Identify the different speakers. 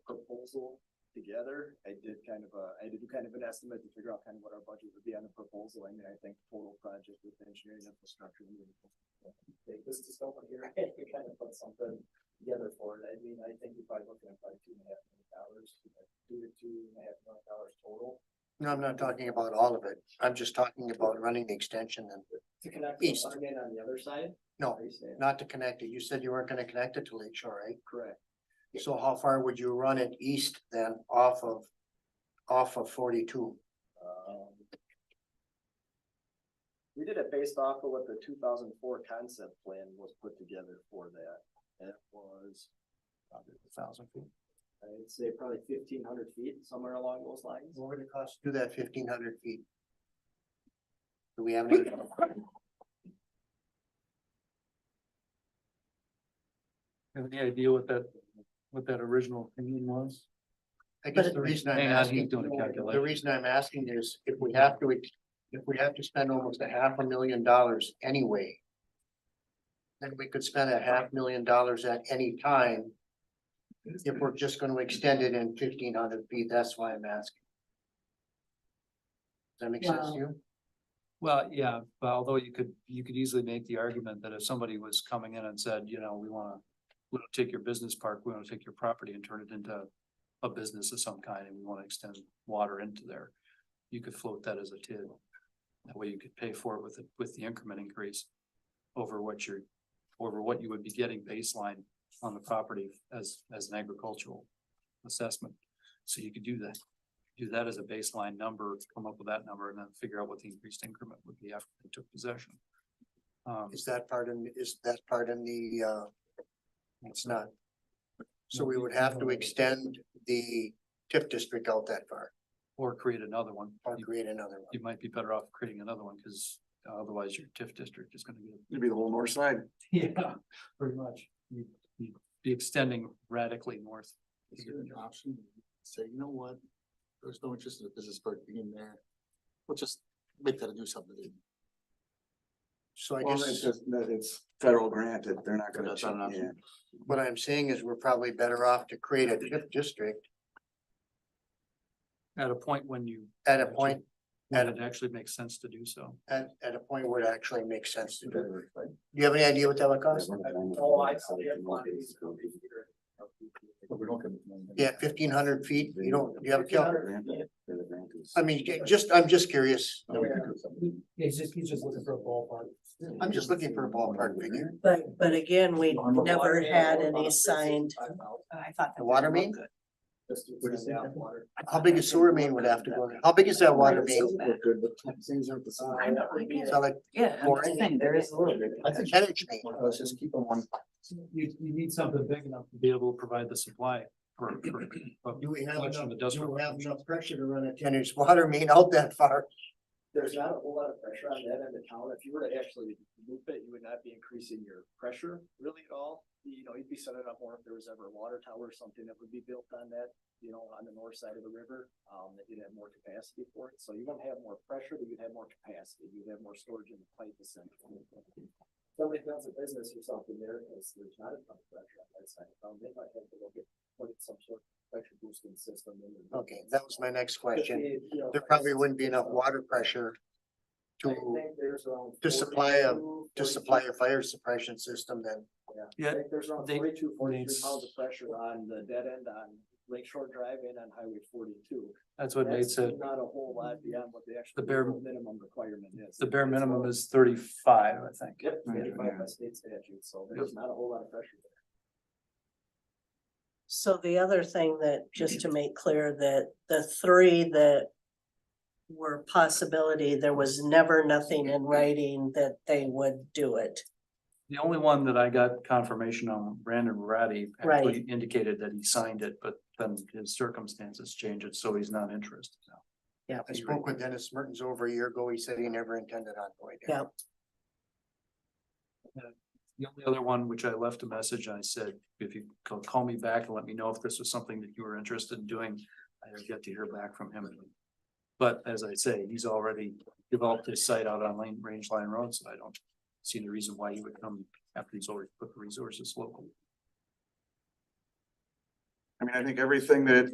Speaker 1: proposal together. I did kind of a, I did do kind of an estimate to figure out kind of what our budget would be on the proposal, and then I think total project with engineering infrastructure. and everything. Take this to someone here, and we kind of put something together for it. I mean, I think you're probably looking at probably two and a half million dollars, you know, two to two and a half million dollars total.
Speaker 2: No, I'm not talking about all of it. I'm just talking about running the extension and
Speaker 1: To connect
Speaker 2: the
Speaker 1: the
Speaker 2: East.
Speaker 1: line in on the other side?
Speaker 2: No.
Speaker 1: Are you saying?
Speaker 2: not to connect it. You said you weren't gonna connect it to Lake Shore, right?
Speaker 1: Correct.
Speaker 2: So how far would you run it east then off of, off of forty-two?
Speaker 1: Um, We did it based off of what the two thousand four concept plan was put together for that. And It was,
Speaker 2: Thousand feet.
Speaker 1: I'd say probably fifteen hundred feet, somewhere along those lines.
Speaker 2: What would it cost? to Do that fifteen hundred feet. Do we have any?
Speaker 3: Any idea what that, what that original opinion was?
Speaker 2: I guess the reason I'm
Speaker 3: Hang on, he's
Speaker 2: asking,
Speaker 3: doing a
Speaker 2: the
Speaker 3: calculation.
Speaker 2: reason I'm asking is if we have to, ex- if we have to spend almost a half a million dollars anyway. Then we could spend a half million dollars at any time. If we're just gonna extend it in fifteen hundred feet, that's why I'm asking. Does that make sense to you?
Speaker 3: Well, yeah, but although you could, you could easily make the argument that if somebody was coming in and said, you know, we wanna, we don't take your business park, we wanna take your property and turn it into a business of some kind, and we wanna extend water into there, you could float that as a TID. That way you could pay for it with, the- with the increment increase over what you're, over what you would be getting baseline on the property as, as an agricultural assessment. So you could do that do that as a baseline number, come up with that number and then figure out what the increased increment would be after they took possession. Um,
Speaker 2: Is that part in, is that part in the, uh, it's not. So we would have to extend the TIF district out that far
Speaker 3: or create another one.
Speaker 2: or
Speaker 3: You-
Speaker 2: create another one.
Speaker 3: You might be better off creating another one because otherwise your TIF district is gonna get.
Speaker 4: It'd be the whole north side.
Speaker 3: Yeah, pretty much. You'd you'd be extending radically north.
Speaker 4: Is there an option to say, you know what, there's no interest in the business park being there, we'll just make that a new subdivision.
Speaker 2: So I
Speaker 5: Well, it's
Speaker 2: guess
Speaker 5: just that it's federal granted, they're not gonna,
Speaker 4: That's not an
Speaker 5: change- yeah,
Speaker 2: what I'm saying is we're probably better off to create a TIF district
Speaker 3: At a point when you,
Speaker 2: at a point,
Speaker 3: when it actually makes sense to do so.
Speaker 2: at, at a point where it actually makes sense to do. it.
Speaker 5: whatever, but-
Speaker 2: Do you have any idea what that would cost?
Speaker 1: Oh, I see.
Speaker 4: But we don't get.
Speaker 2: Yeah, fifteen hundred feet, you don't, you have a
Speaker 5: They're
Speaker 2: calculator?
Speaker 5: granted, they're the grantees.
Speaker 2: I mean, ju- just, I'm just curious.
Speaker 5: No, we can do something.
Speaker 1: He's just, he's just looking for a ballpark.
Speaker 2: I'm just looking for a ballpark figure.
Speaker 6: But, but again, we never had any signed. Oh, I thought.
Speaker 2: The water main,
Speaker 4: What is it?
Speaker 2: how big a sewer main would have to go? How big is that water main?
Speaker 6: so bad.
Speaker 4: Look good, but things aren't the
Speaker 1: I
Speaker 4: same.
Speaker 1: know, I get
Speaker 2: Is
Speaker 1: it.
Speaker 2: that like
Speaker 6: Yeah, I'm just saying, there is a little bit.
Speaker 4: I think,
Speaker 2: an inch main?
Speaker 4: let's just keep on one.
Speaker 3: You, you need something big enough to be able to provide the supply for, for, for
Speaker 2: Do we have
Speaker 3: Much
Speaker 2: enough,
Speaker 3: of it doesn't
Speaker 2: do we
Speaker 3: work.
Speaker 2: have enough pressure to run a ten inch water main out that far?
Speaker 1: There's not a whole lot of pressure on that end of town. If you were to actually loop it, you would not be increasing your pressure really at all. You know, you'd be setting up more if there was ever a water tower or something that would be built on that, you know, on the north side of the river. Um, that you'd have more capacity for it. So you wouldn't have more pressure, but you'd have more capacity. You'd have more storage in the pipe essentially. Somebody builds a business or something there, because there's not a ton of pressure on that side. Um, they might have to look at, put some sort of pressure boosting system in. there.
Speaker 2: Okay, that was my next
Speaker 1: But
Speaker 2: question.
Speaker 1: they, you know,
Speaker 2: There
Speaker 1: like I
Speaker 2: probably
Speaker 1: said,
Speaker 2: wouldn't be enough
Speaker 1: uh,
Speaker 2: water pressure
Speaker 1: I
Speaker 2: to,
Speaker 1: think there's around
Speaker 2: to supply a-
Speaker 1: 42,
Speaker 2: to supply
Speaker 1: 43
Speaker 2: a fire suppression system then.
Speaker 1: I think there's around
Speaker 3: They-
Speaker 1: forty-two, forty-three
Speaker 3: needs-
Speaker 1: pounds of pressure on the dead end on Lake Shore Drive and on Highway forty-two.
Speaker 3: That's what Nate
Speaker 1: That's
Speaker 3: said.
Speaker 1: Not a whole lot beyond what the actual
Speaker 3: bare-
Speaker 1: legal minimum requirement is.
Speaker 3: The bare
Speaker 1: It's
Speaker 3: minimum
Speaker 1: about-
Speaker 3: is thirty-five, I think.
Speaker 1: Yep,
Speaker 5: Right,
Speaker 1: eighty-five by
Speaker 5: yeah.
Speaker 1: state statute, so there's not a whole lot of pressure there.
Speaker 6: So the other thing that, just to make clear, that the three that were possibility, there was never nothing in writing that they would do it.
Speaker 3: The only one that I got confirmation on, Brandon Ratty actually indicated that he signed it, but then his circumstances changed it, so he's not interested now.
Speaker 2: I spoke with Dennis Mertens over a year ago. He said he never intended on going there.
Speaker 6: Yeah.
Speaker 3: The only other one, which I left a message, I said, if you ca- call me back and let me know if this was something that you were interested in doing, I didn't get to hear back from him. But as I say, he's already developed his site out on Lane, Range Line Road, so I don't see any reason why he would come after he's already put the resources local.
Speaker 5: I mean, I think everything that